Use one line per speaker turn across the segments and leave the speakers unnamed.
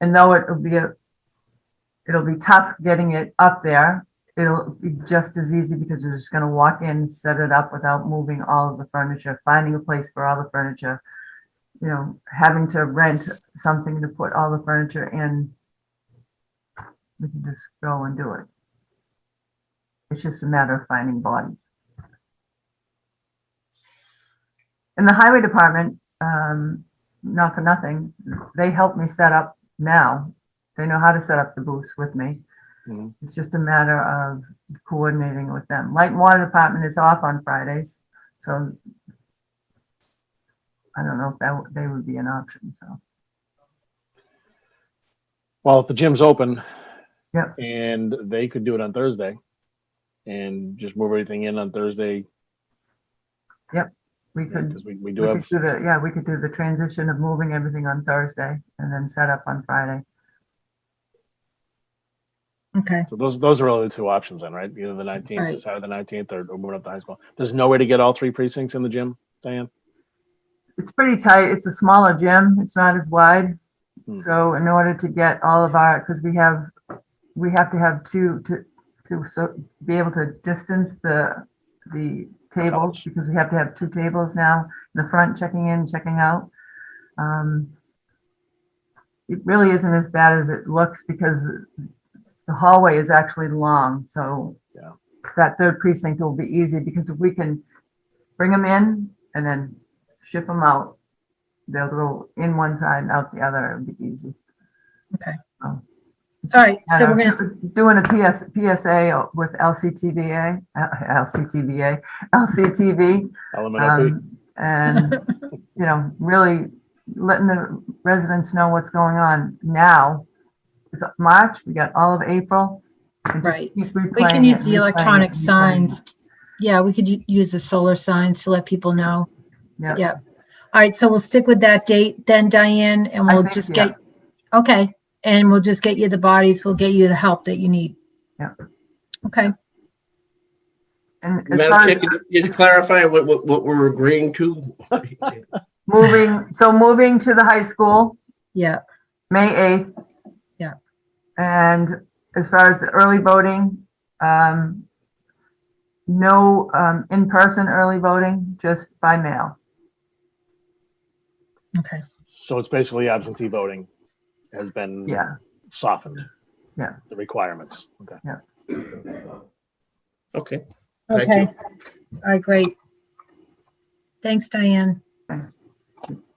And though it'll be a, it'll be tough getting it up there, it'll be just as easy because you're just gonna walk in, set it up without moving all of the furniture, finding a place for all the furniture. You know, having to rent something to put all the furniture in. We can just go and do it. It's just a matter of finding bodies. In the highway department, um, not for nothing, they helped me set up now. They know how to set up the booths with me.
Mhm.
It's just a matter of coordinating with them. Light and water department is off on Fridays, so I don't know if that, would- they would be an option, so.
Well, if the gym's open.
Yep.
And they could do it on Thursday and just move everything in on Thursday
We could,
because we, we do
we
have,
could do the, yeah, we could do the transition of moving everything on Thursday and then set up on Friday.
Okay,
so those, those are only the two options then, right? Either the
Right.
nineteenth, Saturday the nineteenth or or moving up to high school. There's no way to get all three precincts in the gym, Diane?
It's pretty tight. It's a smaller gym. It's not as wide.
Hmm.
So in order to get all of our, because we have, we have to have two to, to so be able to distance the, the tables
Tables.
because we have to have two tables now, in the front checking in, checking out. Um, It really isn't as bad as it looks because the hallway is actually long, so
Yeah.
that third precinct will be easy because if we can bring them in and then ship them out. They'll go in one side and out the other. It'd be easy.
okay.
Oh.
All right, so
And
we're gonna,
I'm Doing a PS, PSA with LCTVA, uh, LCTVA, LCTV.
LMNOP.
um, And, you know, really letting the residents know what's going on now. It's March, we got all of April. and just
Right.
keep
we
replaying
can
it
use
and
the
replaying it
electronic
and replaying it.
signs. Yeah, we could u- use the solar signs to let people know.
Yeah.
Yeah. All right, so we'll stick with that date then, Diane, and
I
we'll
think,
just
yeah.
get, okay, and we'll just get you the bodies, we'll get you the help that you need.
Yeah.
Okay,
And as far
Madam Chair,
as
can you just clarify what, what, what we're agreeing to?
moving, so moving to the high school,
yeah,
May 8th.
Yeah.
And as far as early voting, um, no, um, in-person early voting, just by mail.
okay,
So it's basically absentee voting has been
Yeah,
softened.
Yeah.
The requirements. Okay.
Okay, Thank you.
okay. All right, great. Thanks, Diane.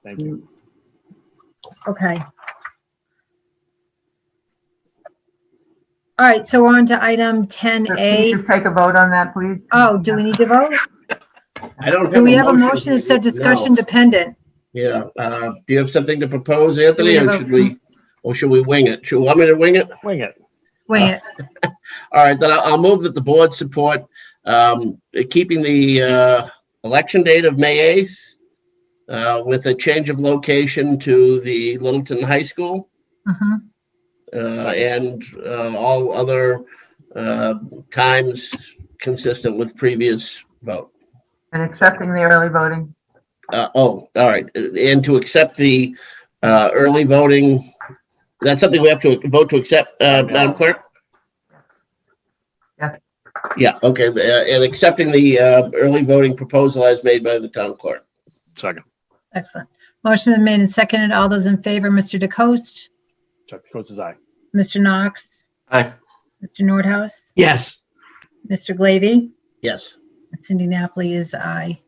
Thank you.
Okay. All right, so we're on to item
So can
10A.
you Just take a vote on that, please.
Oh, do we need to vote?
I don't have.
Do we have a motion that said discussion
No.
dependent?
Yeah, uh, do you have something to propose, Anthony,
Do we
or
have a-
should we, or should we wing it? Should, want me to wing
Mm.
it?
Wing it.
Wait,
All right, then I'll, I'll move that the board support, um, keeping the, uh, election date of May 8th, uh, with a change of location to the Littleton High School.
mhm,
uh, and uh, all other uh, times consistent with previous vote.
And accepting the early voting.
Uh, Oh, all right, and to accept the uh, early voting, that's something we have to vote to accept, uh, Madam Clerk?
Yes.
Yeah, okay, uh, and accepting the uh, early voting proposal as made by the town clerk.
Second.
excellent. Motion been made and seconded. All those in favor, Mr. DeCoste,
Chuck DeCosta's aye.
Mr. Knox,
Aye.
Mr. Nordhaus,
Yes,
Mr. Glavy,
Yes,
Cindy Napoli is aye.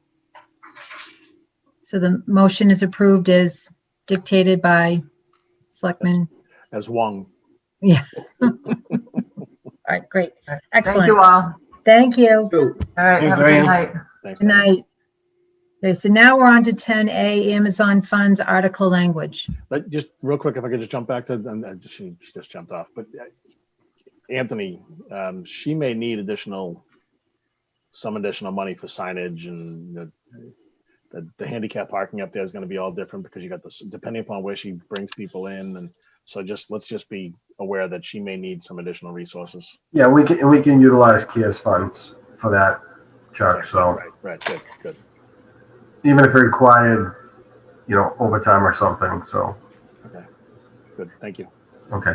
So the motion is approved as dictated by Selectman.
As Wong.
All right, great.
Thank you
Excellent.
all.
Thank you.
Ooh,
All right, have a good night.
Thanks.
Good night. Okay, so now we're on to 10A, Amazon Funds Article Language.
But just real quick, if I could just jump back to, and I just, she just jumped off, but uh, Anthony, um, she may need additional, some additional money for signage and the, the, the handicap parking up there is gonna be all different because you got this, depending upon where she brings people in. And so just, let's just be aware that she may need some additional resources.
Yeah, we can, we can utilize Kia's funds for that, Chuck. So
Right, right, good, good.
even if it required, you know, overtime or something, so.
Good, thank you.
Okay.